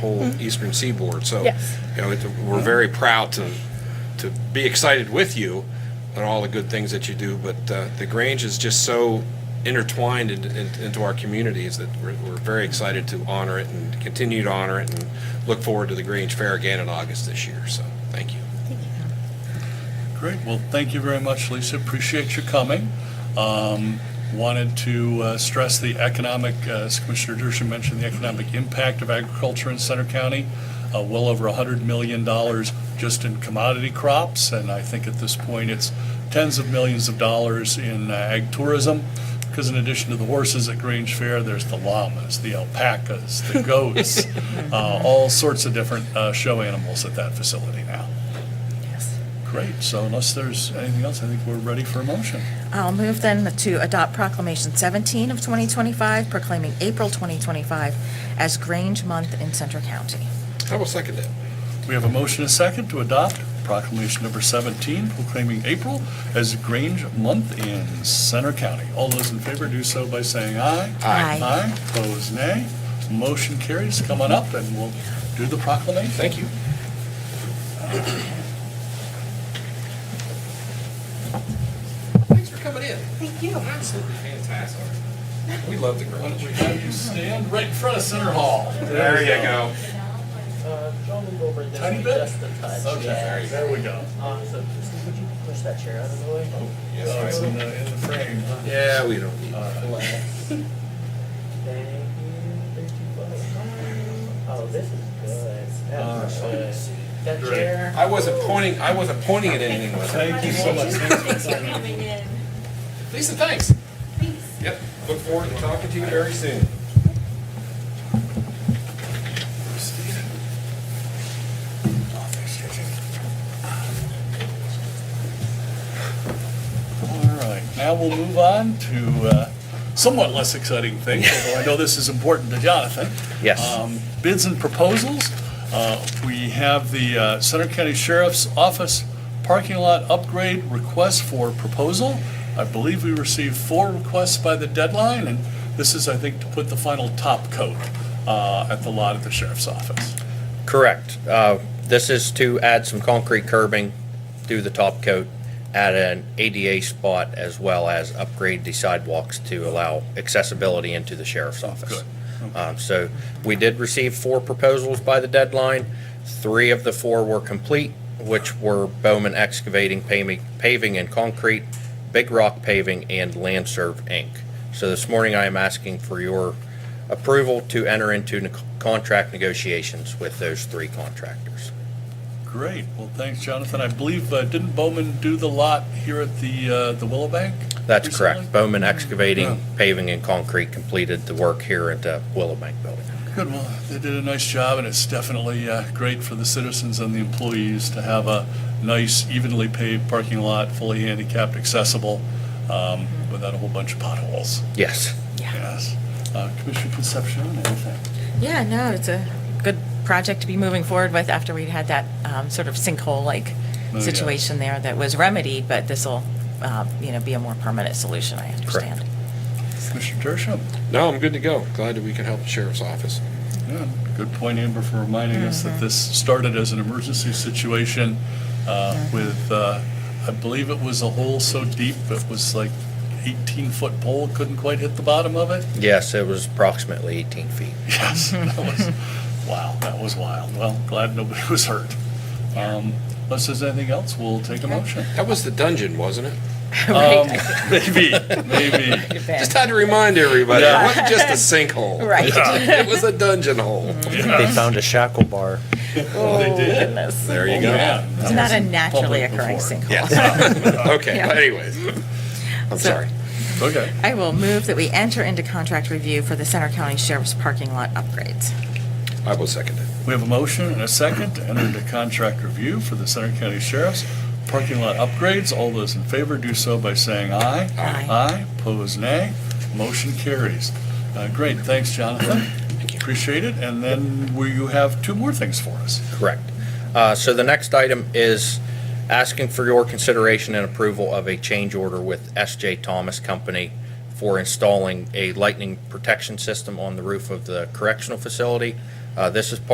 whole eastern seaboard. So, Yes. you know, it- we're very proud to, to be excited with you and all the good things that you do, but uh, the Grange is just so intertwined in- in- into our communities that we're, we're very excited to honor it and continue to honor it and look forward to the Grange Fair again in August this year. So, thank you. Great, well, thank you very much, Lisa, appreciate your coming. Um, Wanted to uh, stress the economic, uh, as Commissioner Dershowitz mentioned, the economic impact of agriculture in Center County, uh, well over $100 million just in commodity crops, and I think at this point, it's tens of millions of dollars in uh, ag tourism, because in addition to the horses at Grange Fair, there's the llamas, the alpacas, the goats, uh, all sorts of different uh, show animals at that facility now. Great, so unless there's anything else, I think we're ready for a motion. I'll move then to adopt Proclamation 17 of 2025 proclaiming April 2025 as Grange Month in Center County. I will second that. We have a motion and a second to adopt proclamation number 17 proclaiming April as Grange Month in Center County. All those in favor do so by saying aye. Aye. Aye, opposed nay. Motion carries. Come on up and we'll do the proclamation. Thank you. Thanks for coming in. Thank you. Absolutely fantastic. We love the Why don't Grange. we have you stand right in front of Center Hall? There you go. Uh, John, move over this Tiny way bit? just a touch. Okay, yeah. there we go. Uh, so, Christie, would you push that chair out of the way? Oh, it's in the, in the frame. huh? Yeah, we don't need. All right. Relax. Thank you, thank you, buddy. Oh, this is good. All right. That's good. That Great. chair. I wasn't pointing, I wasn't pointing at anything with it. Thank you so much. Thanks for coming in. Lisa, thanks. Thanks. Yep, look forward to talking to you very soon. All right, now we'll move on to uh, somewhat less exciting things, although I know this is important to Jonathan. Yes. Um, Bids and proposals. Uh, We have the uh, Center County Sheriff's Office parking lot upgrade request for proposal. I believe we received four requests by the deadline, and this is, I think, to put the final top coat uh, at the lot at the sheriff's office. Correct. Uh, This is to add some concrete curbing through the top coat, add an ADA spot, as well as upgrade the sidewalks to allow accessibility into the sheriff's office. Um, So we did receive four proposals by the deadline. Three of the four were complete, which were Bowman Excavating Paving- Paving and Concrete, Big Rock Paving, and Landserv Inc. So this morning, I am asking for your approval to enter into ne- contract negotiations with those three contractors. Great, well, thanks, Jonathan. I believe, uh, didn't Bowman do the lot here at the uh, the Willow Bank? That's recently? correct. Bowman Excavating, Paving, and Concrete completed the work here at the Willow Bank Building. Good, well, they did a nice job, and it's definitely uh, great for the citizens and the employees to have a nice evenly paved parking lot, fully handicapped accessible, um, without a whole bunch of potholes. Yes. Yes. Uh, Commissioner Concepcion, anything? Yeah, no, it's a good project to be moving forward with after we'd had that um, sort of sinkhole-like yeah. situation there that was remedied, but this'll, uh, you know, be a more permanent solution, I understand. Commissioner Dershowitz? No, I'm good to go. Glad that we could help the sheriff's office. Yeah, Good point, Amber, for reminding us Mm-hmm. that this started as an emergency situation uh, with, uh, I believe it was a hole so deep, it was like 18-foot pole, couldn't quite hit the bottom of it. Yes, it was approximately 18 feet. Yes, Mm-hmm. that was, wow, that was wild. Well, glad nobody was hurt. Um, Unless there's anything else, we'll take a motion. Um, That was the dungeon, wasn't it? Right, Maybe, maybe. I- Ben. Just had to remind everybody, it Yeah. wasn't just a sinkhole. Right. Mm-hmm. It was a dungeon hole. They found a shackle bar. Oh, they did. goodness. There you go. It's not a naturally occurring thing. sinkhole. Okay, Yeah. but anyways. I'm So- sorry. Okay. I will move that we enter into contract review for the Center County Sheriff's parking lot upgrades. I will second it. We have a motion and a second to enter into contract review for the Center County Sheriff's parking lot upgrades. All those in favor do so by saying aye. Aye. Aye, pose nay. Motion carries. Uh, Great, thanks, Jonathan. Appreciate it. And then we- you have two more things for us. Correct. Uh, So the next item is asking for your consideration and approval of a change order with SJ Thomas Company for installing a lightning protection system on the roof of the correctional facility. Uh, This is part